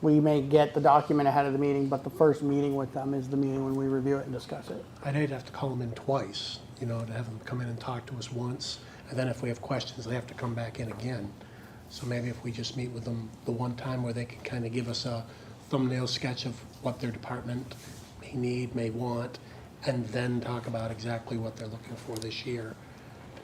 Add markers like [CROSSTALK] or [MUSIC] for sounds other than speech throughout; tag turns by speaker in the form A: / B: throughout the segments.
A: We may get the document ahead of the meeting, but the first meeting with them is the meeting when we review it and discuss it.
B: I know you'd have to call them in twice, you know, to have them come in and talk to us once. And then if we have questions, they have to come back in again. So maybe if we just meet with them the one time where they can kind of give us a thumbnail sketch of what their department may need, may want, and then talk about exactly what they're looking for this year,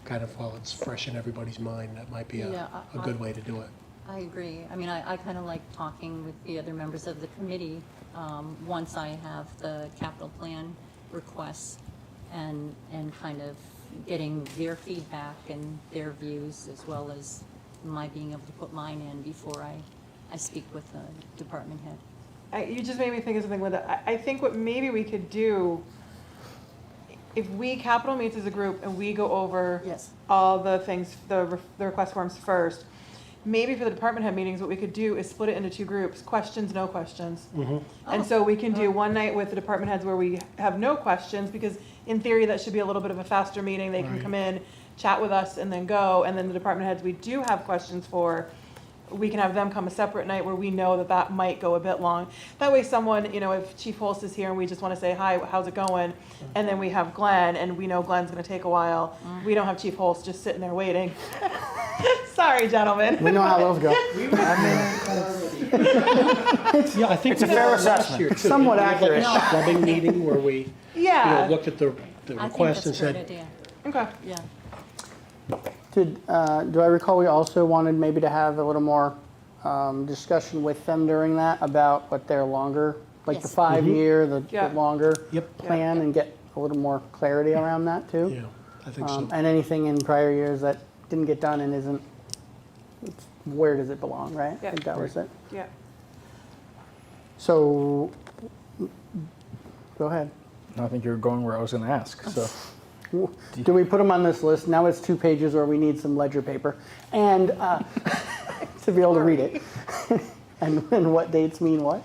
B: kind of while it's fresh in everybody's mind, that might be a,
C: Yeah, I-
B: a good way to do it.
C: I agree. I mean, I, I kind of like talking with the other members of the committee, um, once I have the capital plan requests and, and kind of getting their feedback and their views as well as my being able to put mine in before I, I speak with the department head.
D: I, you just made me think of something, Linda. I, I think what maybe we could do, if we, capital meets as a group and we go over
C: Yes.
D: all the things, the, re- the request forms first, maybe for the department head meetings, what we could do is split it into two groups, questions, no questions. And so we can do one night with the department heads where we have no questions, because in theory, that should be a little bit of a faster meeting. They can
B: Right.
D: come in, chat with us, and then go. And then the department heads we do have questions for, we can have them come a separate night where we know that that might go a bit long. That way someone, you know, if Chief Holst is here and we just want to say, hi, how's it going? And then we have Glenn, and we know Glenn's going to take a while. We don't have Chief Holst just sitting there waiting. [LAUGHS] Sorry,
A: We
D: gentlemen.
A: know how those go.
D: [LAUGHS]
B: Yeah, I think.
E: It's a fair assessment.
A: Somewhat accurate.
B: A clubbing meeting where we, you know,
D: Yeah,
B: looked at the, the
C: I think
B: request
C: that's
B: and
C: a
B: said,
C: great idea.
D: okay.
C: Yeah.
A: Did, uh, do I recall we also wanted maybe to have a little more um, discussion with them during that about what their longer, like the
C: Yes.
A: five-year, the
D: Yeah.
A: the longer
B: Mm-hmm. Yep.
A: plan, and get a little more clarity around that too?
B: Yeah, I think so.
A: Um, And anything in prior years that didn't get done and isn't, it's- where does it belong, right? I
D: Yeah.
A: think that was it.
D: Yeah.
A: So, go ahead.
E: I think you're going where I was going to ask. So
A: Do we put them on this list? Now it's two pages or we need some ledger paper and, uh, [LAUGHS] to be able to read it. [LAUGHS] And, and what dates mean what?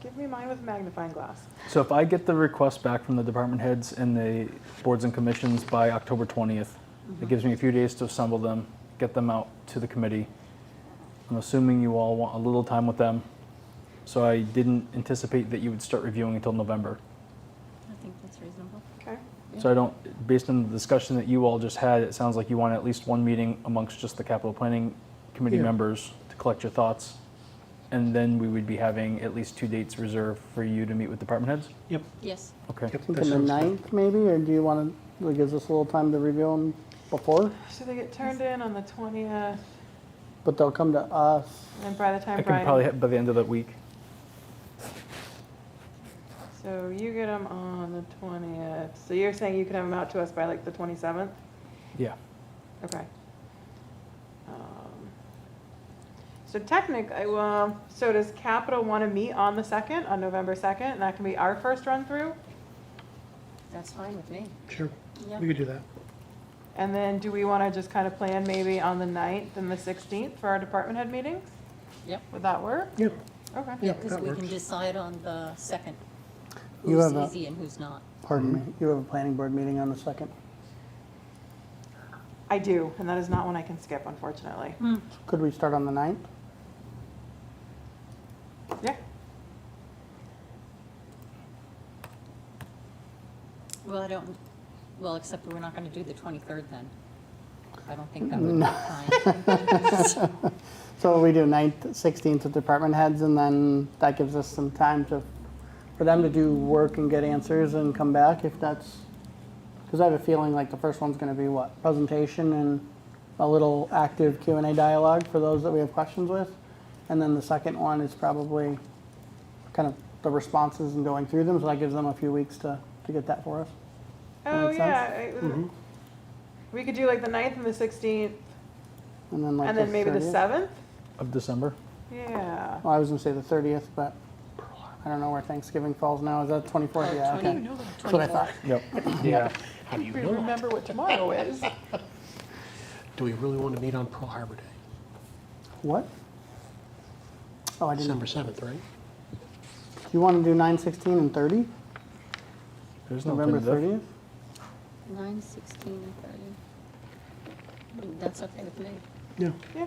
D: Give me mine with a magnifying glass.
E: so if I get the request back from the department heads and the boards and commissions by October 20th, it gives me a few days to assemble them, get them out to the committee. I'm assuming you all want a little time with them. So I didn't anticipate that you would start reviewing until November.
C: I think that's reasonable.
D: Okay.
E: So I don't, based on the discussion that you all just had, it sounds like you want at least one meeting amongst just the capital planning committee
B: Yeah.
E: members to collect your thoughts. And then we would be having at least two dates reserved for you to meet with department heads?
B: Yep.
C: Yes.
E: Okay.
B: yep, that
A: Something the
B: sounds good.
A: ninth maybe, or do you want to, like, gives us a little time to review them before?
D: So they get turned in on the twentieth,
A: But they'll come to us.
D: and by the
E: I
D: time
E: can probably,
D: Brian,
E: have by the end of the week,
D: so you get them on the twentieth. So you're saying you can have them out to us by like the twenty-seventh?
E: yeah.
D: Okay. Um, So technically, well, so does Capital want to meet on the second, on November second? And that can be our first run-through?
C: That's fine with me.
B: Sure,
C: Yeah.
B: we could do that.
D: And then do we want to just kind of plan maybe on the ninth and the sixteenth for our department head meetings?
C: Yep.
D: Would that work?
B: Yeah,
D: Okay.
B: yeah,
C: Because
B: that
C: we can
B: works.
C: decide on the second,
A: You
C: who's
A: have a-
C: easy and who's not.
A: Pardon me, you have a planning board meeting on the second.
D: I do, and that is not one I can skip, unfortunately.
A: Could we start on the ninth?
D: Yeah.
C: Well, I don't, well, except we're not going to do the 23rd then. I don't think that would be fine.
A: So we do ninth, sixteenth with department heads, and then that gives us some time to, for them to do work and get answers and come back if that's, because I have a feeling like the first one's gonna be what, presentation and a little active Q and A dialogue for those that we have questions with. And then the second one is probably kind of the responses and going through them, so that gives them a few weeks to, to get that for us.
D: Oh,
A: makes
D: yeah. I- We could do like the ninth and the sixteenth,
A: And then like
D: and then maybe the
A: 30th.
D: seventh?
E: Of December?
D: Yeah.
A: Well, I was gonna say the thirtieth, but I don't know where Thanksgiving falls now. Is that
D: Oh,
A: twenty-fourth? Yeah, okay. That's what I thought.
E: Yep. Yeah.
B: How do you
D: We
B: know?
D: remember what tomorrow is.
B: Do we really want to meet on Pearl Harbor Day?
A: What? Oh, I didn't.
B: December 7th, right?
A: Do you want to do nine, sixteen, and thirty?
E: There's no
A: November
E: alternative.
A: thirtieth?
C: 9, 16, and 30. That's okay with me.
B: Yeah.
D: Yeah,